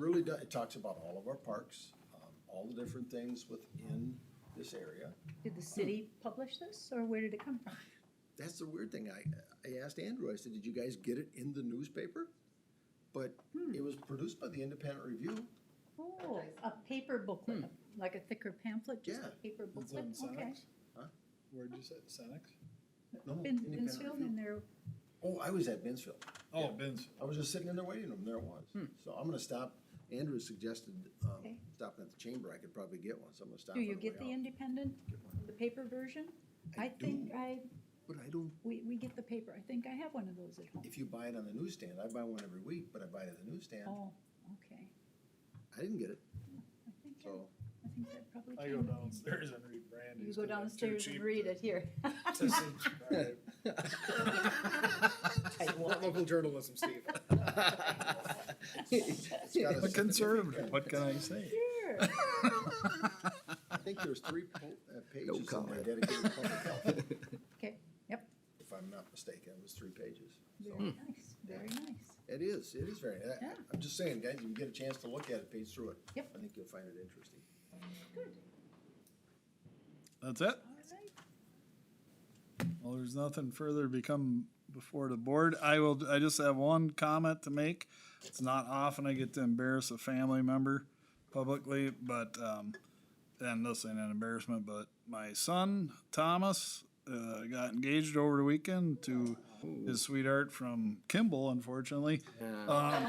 really, do- it talks about all of our parks, um, all the different things within this area. Did the city publish this, or where did it come from? That's the weird thing. I, I asked Andrew, I said, did you guys get it in the newspaper? But Hmm. it was produced by the Independent Review. Oh, a paper booklet, like a thicker pamphlet, just Yeah. a paper It's booklet, on okay. Senex? Huh? Where'd you say, Senex? No, In Independent Binsfield, Review. and there, Oh, I was at Binsfield. Oh, Ben's. I was just sitting in their waiting room, there it was. So I'm gonna stop, Andrew suggested, um, Hmm. Okay. stopping at the chamber, I could probably get one, so I'm gonna stop. do on you the get way the out. independent, Get one. the paper version? I I think do. I, But I don't, we, we get the paper, I think I have one of those at home. if you buy it on the newsstand, I buy one every week, but I buy it at the newsstand, Oh, okay, I didn't get it, I think, I so. I think that probably. I came go with- downstairs and read Brandy's. You go 'cause I'm too downstairs and cheap read to- it here. to sit- all right. Not local journalism, Steve. I'm a conservative, what can I say? Sure. I think there's three po- uh, pages in there comment. dedicated to public health, Okay, yep, if I'm not mistaken, it was three pages. So, very nice, very nice. It is, it is very, I- Yeah. I'm just saying, guys, if you get a chance to look at it, page through it. Yep. I think you'll find it interesting. That's it? All right, Well, there's nothing further to become before the board. I will, I just have one comment to make. It's not often I get to embarrass a family member publicly, but, um, and this ain't an embarrassment, but my son, Thomas, uh, got engaged over the weekend to his sweetheart from Kimball, unfortunately. Um,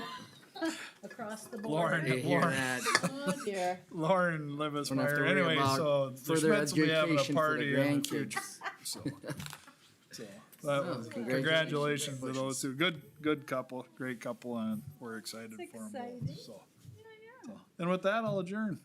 Across the board. Lauren, You hear Lauren, that? Oh dear. Lauren Don't have to Livesmeyer. worry Anyway, about so the further Schmitz will be having a education for the party in the future. grandkids. So, so, but Oh, congratulations to congratulations. those two. Good, good couple, great couple, and we're excited It's for them both. exciting. So, Yeah, yeah. and with that, I'll adjourn.